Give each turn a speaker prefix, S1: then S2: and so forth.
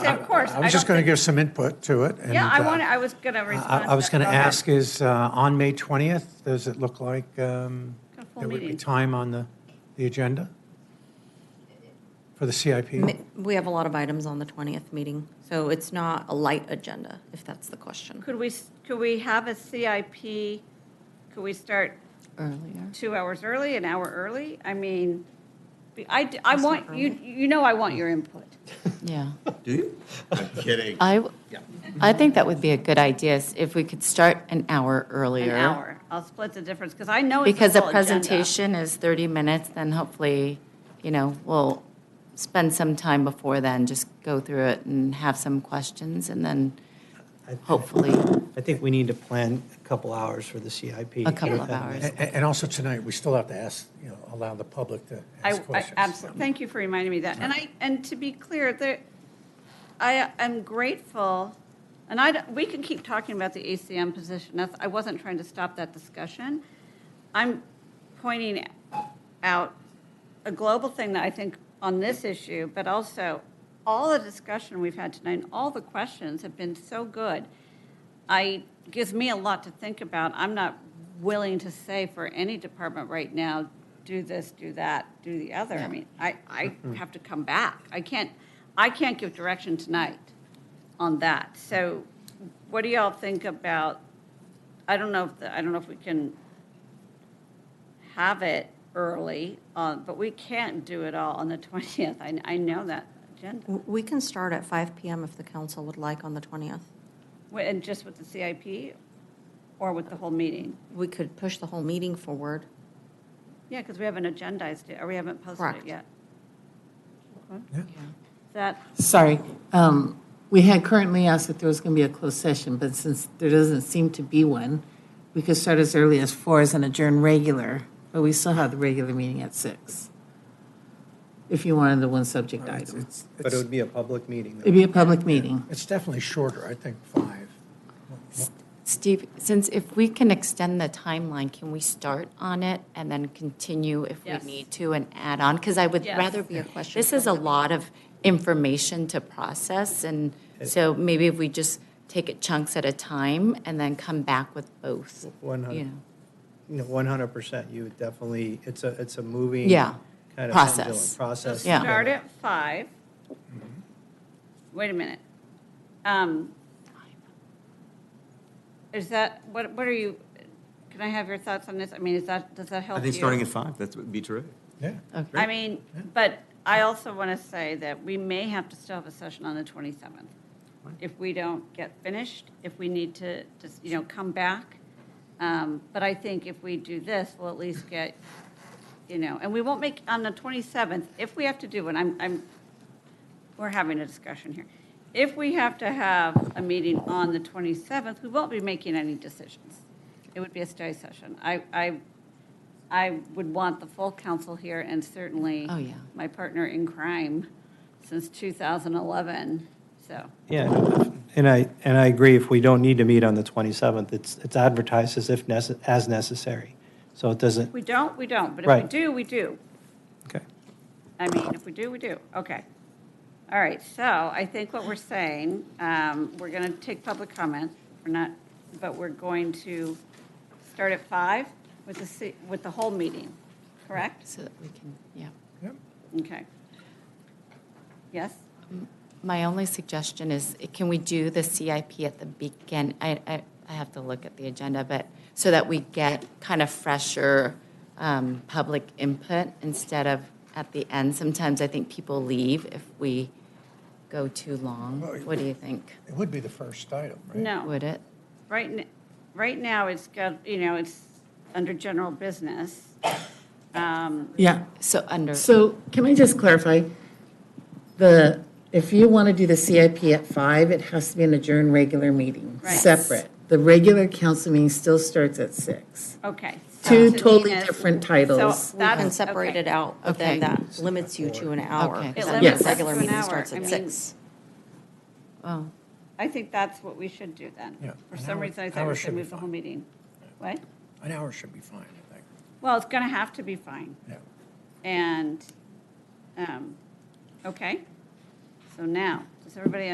S1: Of course.
S2: I was
S1: don't
S2: just going to
S1: think-
S2: give some input to it. and,
S1: Yeah, I
S2: uh,
S1: want, I was going to respond.
S2: I I was
S1: that.
S2: going to
S1: Go ahead.
S2: ask is, uh, on May 20th, does it look like um,
S1: Got a full
S2: there would be
S1: meeting.
S2: time on the, the agenda for the CIP?
S3: Mi- We have a lot of items on the 20th meeting, so it's not a light agenda, if that's the question.
S1: Could we, s- could we have a CIP? Could we start
S3: Earlier.
S1: two hours early, an hour early? I mean, be- I, d- I want, you, you know I want your input.
S4: Yeah,
S5: Do you? I'm kidding.
S4: I, w- I think that would be a good idea, is if we could start an hour
S1: An
S4: earlier.
S1: hour. I'll split the difference because I know it's a
S4: Because the
S1: full agenda.
S4: presentation is 30 minutes, then hopefully, you know, we'll spend some time before then, just go through it and have some questions, and then
S6: I-
S4: hopefully,
S6: I think we need to plan a couple hours for the CIP.
S4: a couple of hours.
S2: A- a- And also tonight, we still have to ask, you know, allow the public to
S1: I,
S2: ask
S1: I
S2: questions.
S1: absolutely, thank you for reminding me of that. And I, and to be clear, there, I am grateful, and I, don't- we can keep talking about the ACM position. That's, I wasn't trying to stop that discussion. I'm pointing out a global thing that I think on this issue, but also all the discussion we've had tonight and all the questions have been so good. I, gives me a lot to think about. I'm not willing to say for any department right now, do this, do that, do the other. I mean, I, I have to come back. I can't, I can't give direction tonight on that. So what do y'all think about, I don't know if, the- I don't know if we can have it early, uh, but we can't do it all on the 20th. I, I know that agenda.
S3: We can start at 5 PM if the council would like on the 20th.
S1: Wait, And just with the CIP or with the whole meeting?
S3: We could push the whole meeting forward.
S1: Yeah, because we haven't agendized it, or we haven't posted it
S3: Correct.
S1: yet. Okay.
S2: Yeah.
S1: That,
S7: Sorry, um, we had currently asked if there was going to be a closed session, but since there doesn't seem to be one, we could start as early as four as an adjourn regular, but we still have the regular meeting at six. If you wanted the one subject item.
S2: It's-
S6: But it
S2: It's
S6: would be a public meeting. though.
S7: It'd be a public meeting.
S2: it's definitely shorter, I think, five.
S4: Steve, since if we can extend the timeline, can we start on it and then continue if we
S1: Yes.
S4: need to and add on? Because I would
S1: Yes.
S4: rather be a question. This is a lot of information to process, and
S6: Okay.
S4: so maybe if we just take it chunks at a time and then come back with both.
S6: One
S4: you
S6: hundred,
S4: know.
S6: you know, one hundred percent. You would definitely, it's a, it's a moving.
S4: Yeah.
S6: Kind of
S4: Process.
S6: pendulum process.
S4: Yeah.
S1: start at five.
S5: Mm-hmm.
S1: Wait a minute. Um, Is that, what, what are you, can I have your thoughts on this? I mean, is that, does that help
S5: I
S1: you?
S5: think starting at five, that would be terrific.
S2: Yeah.
S1: I mean, but I also want to say that we may have to still have a session on the 27th. If we don't get finished, if we need to just, you know, come back. Um, But I think if we do this, we'll at least get, you know, and we won't make, on the 27th, if we have to do one, I'm, I'm, we're having a discussion here. If we have to have a meeting on the 27th, we won't be making any decisions. It would be a study session. I, I, I would want the full council here and certainly
S4: Oh, yeah.
S1: my partner in crime since 2011, so.
S6: Yeah, and I, and I agree, if we don't need to meet on the 27th, it's, it's advertised as if, nece- as necessary. So it doesn't,
S1: We don't, we don't, but if we
S6: Right.
S1: do, we do.
S6: okay.
S1: I mean, if we do, we do. Okay. All right, so I think what we're saying, um, we're going to take public comment. We're not, but we're going to start at five with the, ci- with the whole meeting, correct?
S4: So that we can, yeah.
S1: Okay. Yes?
S4: My only suggestion is, can we do the CIP at the begin? I, I, I have to look at the agenda, but, so that we get kind of fresher um, public input instead of at the end. Sometimes I think people leave if we go too long. What do you think?
S2: It would be the first item, right?
S1: No.
S4: Would it?
S1: Right, n- right now, it's got, you know, it's under general business.
S7: Yeah.
S4: So under,
S7: So can I just clarify? The, if you want to do the CIP at five, it has to be an adjourned regular meeting,
S1: Right.
S7: separate. The regular council meeting still starts at six.
S1: Okay. so
S7: Two
S1: to
S7: totally
S1: Nina's-
S7: different
S1: So
S7: titles.
S3: We
S1: That's-
S3: can separate
S1: okay.
S3: it out, but then
S4: Okay.
S3: that limits you to an hour.
S4: Okay.
S3: 'cause
S4: It
S3: then the
S7: limits us
S3: regular
S1: to an
S3: meeting
S1: hour.
S3: starts
S1: I
S3: at
S1: mean-
S3: six.
S4: oh,
S1: I think that's what we should do
S2: Yeah,
S1: then. For
S2: an
S1: some
S2: hour-
S1: reason, I thought
S2: hour
S1: we
S2: should
S1: should
S2: be
S1: move the whole
S2: fine.
S1: meeting. What?
S2: An hour should be fine, I think.
S1: Well, it's going to have to be fine.
S2: Yeah.
S1: And, um, okay. So now, does everybody